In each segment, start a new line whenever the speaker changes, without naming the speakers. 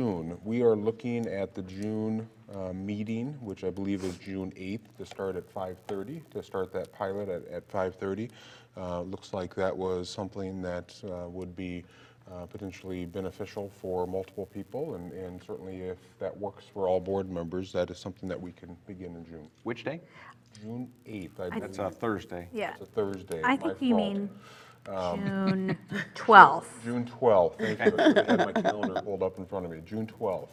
June, we are looking at the June uh, meeting, which I believe is June 8th, to start at 5:30, to start that pilot at at 5:30. Uh, Looks like that was something that uh, would be uh, potentially beneficial for multiple people, and- and certainly if that works for all board members, that is something that we can begin in June.
Which day?
June 8th, I believe.
That's a Thursday.
Yeah,
It's a Thursday. my
I think you
fault. Um,
mean June 12th.
June 12th, thank you. I had my calendar pulled up in front of me. June 12th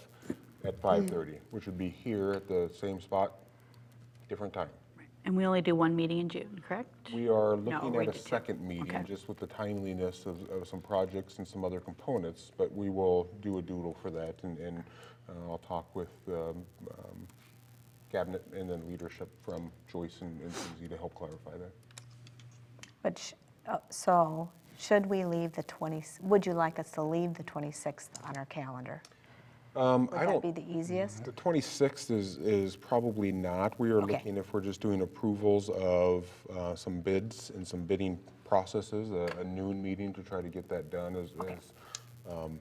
Hmm.
at 5:30, which would be here at the same spot, different time.
And we only do one meeting in June, correct?
We are
No,
looking
we
at a
did two.
second meeting,
Okay.
just with the timeliness of, of some projects and some other components, but we will do a doodle for that, and, and uh, I'll talk with um, um, cabinet and then leadership from Joyce and and Suzie to help clarify that.
But, sh- uh, so, should we leave the 20, would you like us to leave the 26th on our calendar?
Um,
Would
I
that
don't-
be the easiest?
The 26th is, is probably not. We are
Okay.
looking, if we're just doing approvals of uh, some bids and some bidding processes, a a noon meeting to try to get that done as, as, um,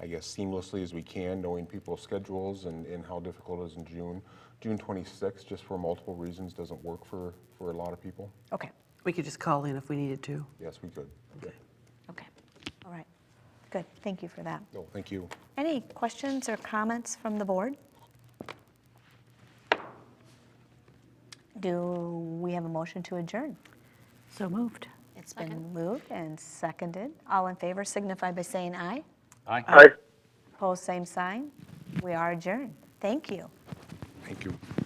I guess seamlessly as we can, knowing people's schedules and, and how difficult it is in June. June 26th, just for multiple reasons, doesn't work for, for a lot of people.
Okay,
We could just call in if we needed to.
Yes, we could. Yeah.
okay, all right. Good, thank you for that.
No, Oh, thank you.
Any questions or comments from the board? Do we have a motion to adjourn?
So moved.
It's been moved and seconded. All in favor signify by saying aye.
Aye.
Opposed, same sign. We are adjourned. Thank you.
Thank you.